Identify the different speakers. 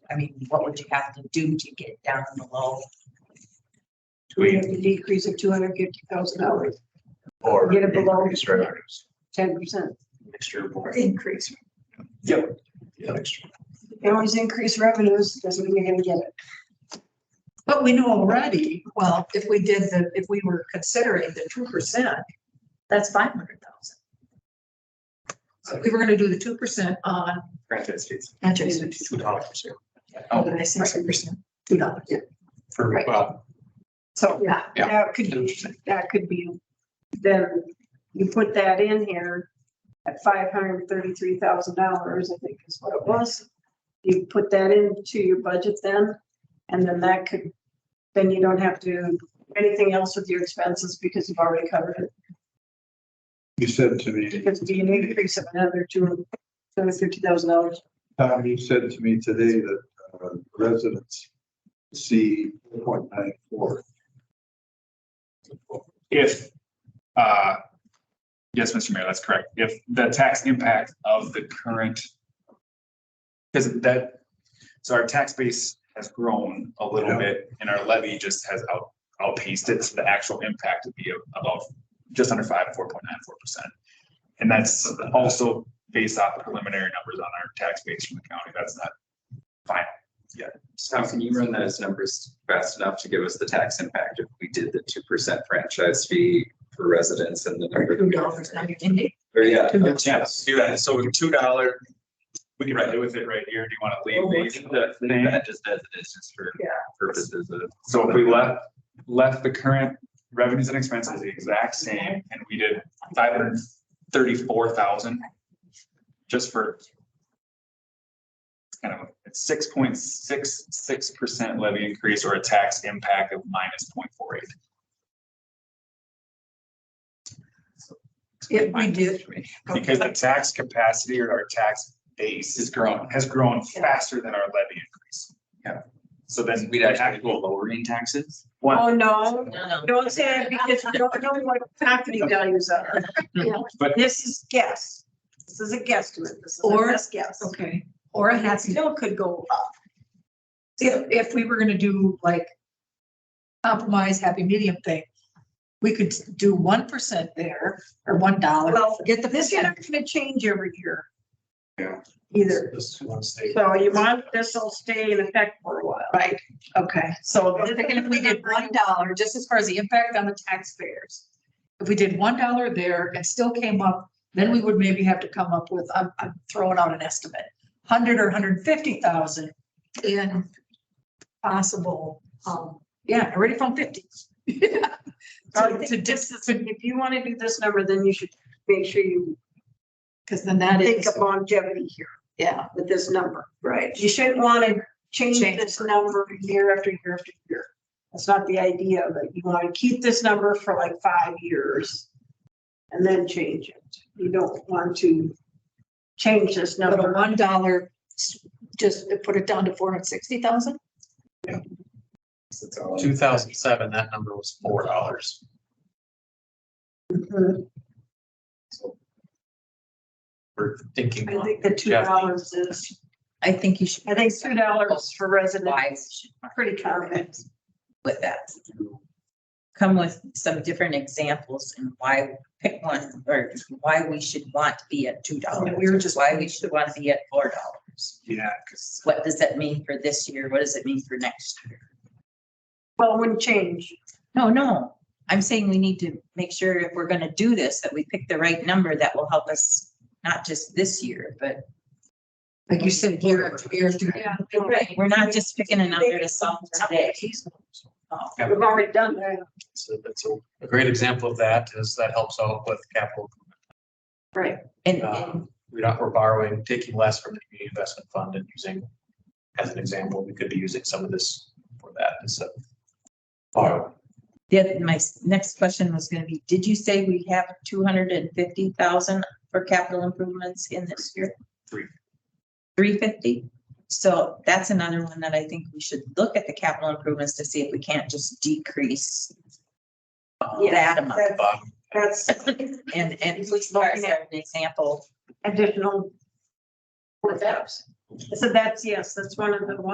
Speaker 1: I mean, what would you have to do to get down below?
Speaker 2: Do
Speaker 3: We
Speaker 2: we
Speaker 3: have to decrease of two hundred fifty thousand dollars,
Speaker 2: or
Speaker 3: Get it below.
Speaker 2: increase revenues?
Speaker 3: ten percent.
Speaker 2: Mixture of both.
Speaker 3: Increase.
Speaker 2: Yep. Yeah, mixture.
Speaker 3: They always increase revenues, doesn't mean you're gonna get it.
Speaker 4: But we know already, well, if we did the, if we were considering the two percent, that's five hundred thousand. So if we were gonna do the two percent on
Speaker 2: Franchise fees,
Speaker 4: franchise fees,
Speaker 2: two dollars
Speaker 4: did I say two percent? Two dollars.
Speaker 2: for,
Speaker 4: Right.
Speaker 2: well,
Speaker 3: So
Speaker 4: Yeah.
Speaker 2: Yeah.
Speaker 3: that could, be- that could be, then you put that in here at five hundred thirty-three thousand dollars, I think is what it was. You put that into your budget then, and then that could, then you don't have to do anything else with your expenses because you've already covered it.
Speaker 5: You said to me,
Speaker 3: Because be an increase of another two hundred fifty thousand dollars.
Speaker 5: Tom, you said to me today that uh, residents see point nine four.
Speaker 6: if, uh, yes, Mr. Mayor, that's correct. If the tax impact of the current, because that, so our tax base has grown a little
Speaker 5: Yeah.
Speaker 6: bit and our levy just has out, outpaced it. So the actual impact would be about just under five, four point nine, four percent. And that's also based off the preliminary numbers on our tax base from the county. That's not final yet.
Speaker 7: How can you run those numbers fast enough to give us the tax impact if we did the two percent franchise fee for residents and the number?
Speaker 4: Two dollars, now you're indeed.
Speaker 7: Or yeah,
Speaker 4: Two dollars.
Speaker 6: Yeah, let's do that. So with two dollar, we can play with it right here. Do you want to
Speaker 7: leave
Speaker 6: leave
Speaker 7: these-
Speaker 6: these?
Speaker 7: leave that just as it is, just for
Speaker 3: Yeah.
Speaker 7: purposes of.
Speaker 6: So if we left, left the current revenues and expenses the exact same and we did five hundred thirty-four thousand just for it's kind of a six point six six percent levy increase or a tax impact of minus point four eight.
Speaker 4: If we did.
Speaker 6: Because the tax capacity or our tax base is grown, has grown faster than our levy increase.
Speaker 7: Yeah.
Speaker 6: So then
Speaker 7: We'd actually go lowering taxes?
Speaker 6: One,
Speaker 3: Oh, no,
Speaker 1: No, no.
Speaker 3: don't say that because you don't know what property values are.
Speaker 6: But-
Speaker 3: This is guess. This is a guesstimate. This is a
Speaker 4: Or-
Speaker 3: best guess.
Speaker 4: Okay, or a
Speaker 3: That
Speaker 4: half,
Speaker 3: still could go up.
Speaker 4: if, if we were gonna do like compromise, happy medium thing, we could do one percent there or one dollar,
Speaker 3: Well,
Speaker 4: get the
Speaker 3: This is
Speaker 4: percent.
Speaker 3: not gonna change every year.
Speaker 2: Yeah.
Speaker 3: Either.
Speaker 2: This is one state.
Speaker 3: So you want, this will stay in effect for a while.
Speaker 4: Right, okay, so I was
Speaker 3: This
Speaker 4: thinking if we did
Speaker 3: is the
Speaker 4: one dollar, just as far as the impact on the taxpayers. If we did one dollar there and still came up, then we would maybe have to come up with, I'm, I'm throwing out an estimate, hundred or hundred fifty thousand in possible, um, yeah, already from fifty. Yeah.
Speaker 3: I
Speaker 4: To,
Speaker 3: think
Speaker 4: to distance,
Speaker 3: If you wanna do this number, then you should make sure you
Speaker 4: because then that
Speaker 3: think
Speaker 4: is,
Speaker 3: of longevity here
Speaker 4: yeah,
Speaker 3: with this number.
Speaker 4: right.
Speaker 3: You shouldn't wanna change
Speaker 4: Change.
Speaker 3: this number year after year after year. That's not the idea, but you wanna keep this number for like five years and then change it. You don't want to change this
Speaker 4: But a
Speaker 3: number.
Speaker 4: one dollar, just put it down to four hundred sixty thousand?
Speaker 2: Two thousand seven, that number was four dollars.
Speaker 3: Mhm.
Speaker 2: We're thinking.
Speaker 3: I think the two dollars is,
Speaker 1: I think you should.
Speaker 3: I think two dollars for residents,
Speaker 1: Wise
Speaker 3: pretty common.
Speaker 1: with that. Come with some different examples and why pick one or why we should want to be at two dollars.
Speaker 4: We were just-
Speaker 1: Why we should want to be at four dollars.
Speaker 6: yeah, because
Speaker 1: What does that mean for this year? What does it mean for next year?
Speaker 3: Well, it wouldn't change.
Speaker 1: No, no. I'm saying we need to make sure if we're gonna do this, that we pick the right number that will help us, not just this year, but
Speaker 4: Like you said, year after year after year.
Speaker 3: Yeah.
Speaker 1: we're not just picking a number to solve today.
Speaker 3: We've already done that,
Speaker 2: So that's a, a great example of that is that helps out with capital.
Speaker 3: right?
Speaker 1: And, and
Speaker 2: Um, We don't, we're borrowing, taking less from the community investment fund and using, as an example, we could be using some of this for that instead. of Borrow.
Speaker 1: the other, my s- next question was gonna be, did you say we have two hundred and fifty thousand for capital improvements in this year?
Speaker 6: Three.
Speaker 1: Three fifty? So that's another one that I think we should look at the capital improvements to see if we can't just decrease that amount.
Speaker 3: That's-
Speaker 2: Bottom.
Speaker 3: That's
Speaker 1: And, and police cars are an example
Speaker 3: additional workshops. So that's, yes, that's one of the ones